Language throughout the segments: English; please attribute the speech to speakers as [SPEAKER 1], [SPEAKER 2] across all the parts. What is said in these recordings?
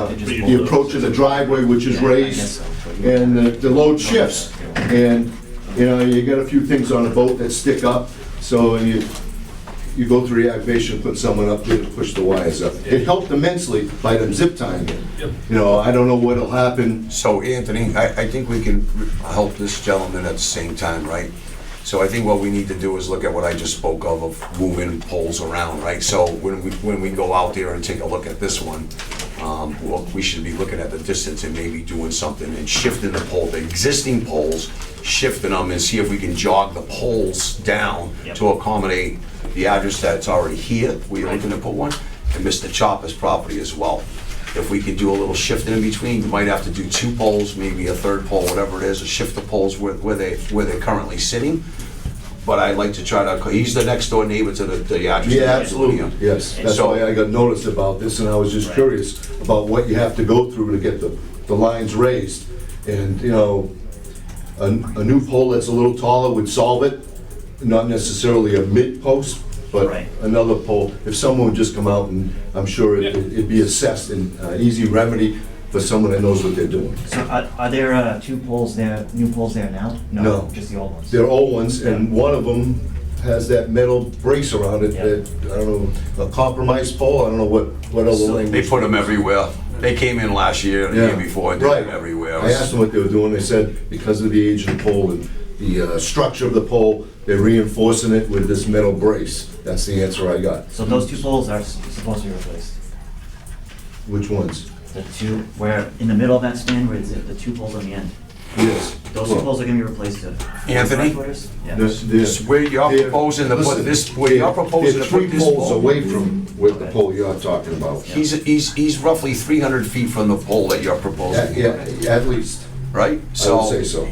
[SPEAKER 1] They just
[SPEAKER 2] the
[SPEAKER 1] bulldoze.
[SPEAKER 2] approach of the driveway, which is
[SPEAKER 1] Yeah, I guess
[SPEAKER 2] raised,
[SPEAKER 1] so, but you-
[SPEAKER 2] and the- the load shifts. And, you know, you got a few things on a boat that stick up, so you, you go through reactivation, put someone up there to push the wires up. It helped immensely by them zip tying it. You know, I don't know what'll happen.
[SPEAKER 3] So Anthony, I, I think we can help this gentleman at the same time, right? So I think what we need to do is look at what I just spoke of, of moving poles around, right? So when we, when we go out there and take a look at this one, um, well, we should be looking at the distance and maybe doing something and shifting the pole, the existing poles, shifting them and see if we can jog the poles down
[SPEAKER 1] Yep.
[SPEAKER 3] to accommodate the address that's already here, we are looking to put one, and Mr. Chopper's property as well. If we could do a little shifting in between, we might have to do two poles, maybe a third pole, whatever it is, or shift the poles where, where they, where they're currently sitting. But I'd like to try to, he's the next door neighbor to the, the address.
[SPEAKER 2] Yeah, absolutely, yes. That's
[SPEAKER 3] So-
[SPEAKER 2] why I got noticed about this, and I was just
[SPEAKER 1] Right.
[SPEAKER 2] curious about what you have to go through to get the, the lines raised. And, you know, a, a new pole that's a little taller would solve it, not necessarily a mid-post, but
[SPEAKER 1] Right.
[SPEAKER 2] another pole. If someone would just come out and, I'm sure it- it'd be assessed and uh, easy remedy for someone that knows what they're doing.
[SPEAKER 1] So are, are there uh, two poles there, new poles there now?
[SPEAKER 2] No.
[SPEAKER 1] Just the old ones?
[SPEAKER 2] They're old ones, and one of them has that metal brace around it
[SPEAKER 1] Yeah.
[SPEAKER 2] that, I don't know, a compromised pole, I don't know what, what other
[SPEAKER 1] So-
[SPEAKER 2] language.
[SPEAKER 3] They put them everywhere. They came in last year and the year before, and did
[SPEAKER 2] Right.
[SPEAKER 3] them everywhere.
[SPEAKER 2] I asked them what they were doing, they said because of the age of the pole and the uh, structure of the pole, they're reinforcing it with this metal brace. That's the answer I got.
[SPEAKER 1] So those two poles are s- supposed to be replaced?
[SPEAKER 2] Which ones?
[SPEAKER 1] The two, where, in the middle of that span, where it's the two poles on the end?
[SPEAKER 2] Yes.
[SPEAKER 1] Those two poles are gonna be replaced to...
[SPEAKER 3] Anthony?
[SPEAKER 1] Yeah.
[SPEAKER 3] This
[SPEAKER 2] This
[SPEAKER 3] where you're proposing to put this- where you're proposing to put
[SPEAKER 2] Three
[SPEAKER 3] this
[SPEAKER 2] poles
[SPEAKER 3] pole?
[SPEAKER 2] away from where the
[SPEAKER 1] Okay.
[SPEAKER 2] pole you're talking about.
[SPEAKER 3] He's, he's, he's roughly 300 feet from the pole that you're
[SPEAKER 2] At-
[SPEAKER 3] proposing,
[SPEAKER 2] Yeah, at least, I
[SPEAKER 3] right?
[SPEAKER 2] would
[SPEAKER 3] So
[SPEAKER 2] say so.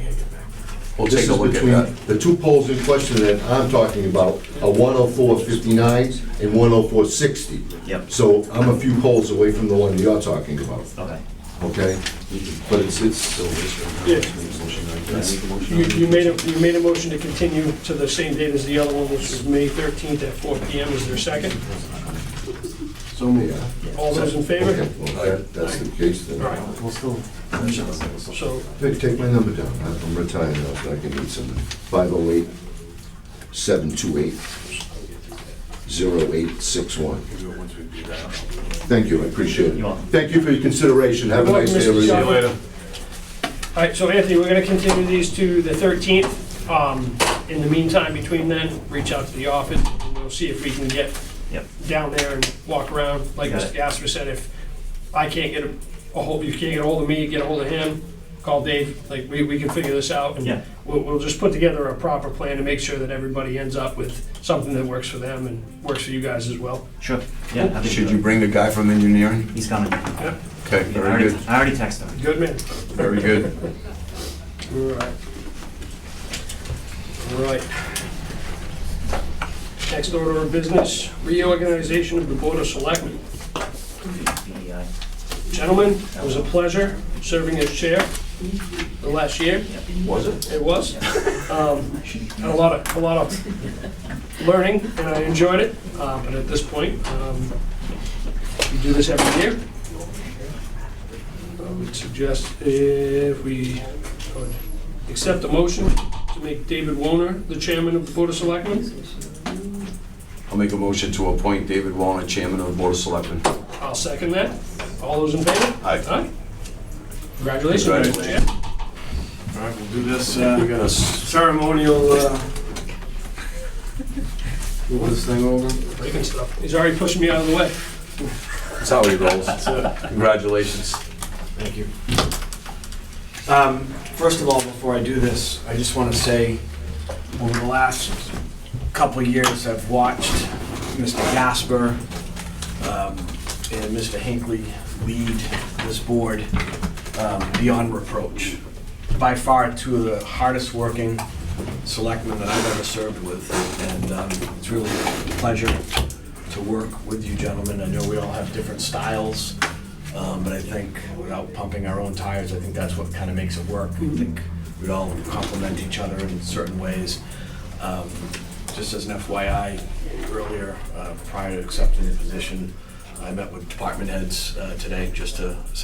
[SPEAKER 3] we'll
[SPEAKER 2] This
[SPEAKER 3] take a
[SPEAKER 2] is
[SPEAKER 3] look at
[SPEAKER 2] between
[SPEAKER 3] that.
[SPEAKER 2] The two poles in question that I'm talking about are 10459 and 10460.
[SPEAKER 1] Yep.
[SPEAKER 2] So I'm a few poles away from the one you're talking about,
[SPEAKER 1] Okay.
[SPEAKER 2] okay? But it's, it's,
[SPEAKER 4] You, you made a, you made a motion to continue to the same date as the other one, which is May 13th at 4 PM. Is there a second?
[SPEAKER 2] so, yeah.
[SPEAKER 4] All those in favor?
[SPEAKER 2] Okay, well, that- that's the case
[SPEAKER 4] All
[SPEAKER 2] then.
[SPEAKER 4] right,
[SPEAKER 1] We'll still...
[SPEAKER 4] so
[SPEAKER 2] Hey, Take my number down, I'm I'm retired now, so I can need some, 508 728 0861. Thank you, I appreciate
[SPEAKER 1] You're
[SPEAKER 2] it.
[SPEAKER 1] welcome.
[SPEAKER 2] Thank you for your consideration, have a
[SPEAKER 4] You're
[SPEAKER 2] nice
[SPEAKER 4] welcome,
[SPEAKER 2] day,
[SPEAKER 4] Mr.
[SPEAKER 2] everyone.
[SPEAKER 4] Chairman. All right, so Anthony, we're gonna continue these to the 13th. Um, In the meantime, between then, reach out to the office, and we'll see if we can get
[SPEAKER 1] Yep.
[SPEAKER 4] down there and walk around. Like
[SPEAKER 1] Got
[SPEAKER 4] Mr.
[SPEAKER 1] it.
[SPEAKER 4] Gasper said, if I can't get a a hold, you can't get a hold of me, get a hold of him, call Dave, like, we, we can figure this out. and
[SPEAKER 1] Yeah.
[SPEAKER 4] We'll, we'll just put together a proper plan to make sure that everybody ends up with something that works for them and works for you guys as well.
[SPEAKER 1] Sure. Yeah. happy to
[SPEAKER 3] Should
[SPEAKER 1] do
[SPEAKER 3] you
[SPEAKER 1] it.
[SPEAKER 3] bring the guy from engineering?
[SPEAKER 1] He's coming.
[SPEAKER 4] Yep,
[SPEAKER 3] Okay,
[SPEAKER 1] I
[SPEAKER 3] very
[SPEAKER 1] already,
[SPEAKER 3] good,
[SPEAKER 1] I already texted him.
[SPEAKER 4] good man.
[SPEAKER 3] very good.
[SPEAKER 4] All right. All right. Next order of business, reorganization of the Board of Selectmen.
[SPEAKER 1] BEI.
[SPEAKER 4] Gentlemen, it was a pleasure serving as chair the last year.
[SPEAKER 3] Was it?
[SPEAKER 4] It was. Um, Had a lot of, a lot of learning, and I enjoyed it, Uh, but at this point, um, we do this every year. I would suggest if we could accept a motion to make David Woner the chairman of the Board of Selectmen.
[SPEAKER 3] I'll make a motion to appoint David Wallner, chairman of the board of selectmen.
[SPEAKER 4] I'll second that. All those in favor?
[SPEAKER 3] Aye.
[SPEAKER 4] Aye. Congratulations, Mr. Chair.
[SPEAKER 5] All right, we'll do this, uh, we got a ceremonial, uh, move this thing over.
[SPEAKER 4] Breaking stuff. He's already pushing me out of the way.
[SPEAKER 3] That's how he rolls. Congratulations.
[SPEAKER 5] Thank you. Um, First of all, before I do this, I just want to say, over the last couple of years, I've watched Mr. Gasper um, and Mr. Hinckley lead this board um, beyond reproach. By far, two of the hardest-working selectmen that I've ever served with, and um, it's really a pleasure to work with you gentlemen. I know we all have different styles, um, but I think without pumping our own tires, I think that's what kind of makes it work. I think we'd all complement each other in certain ways. Um, Just as an FYI, earlier, uh, prior to accepting the position, I met with department heads uh, today just to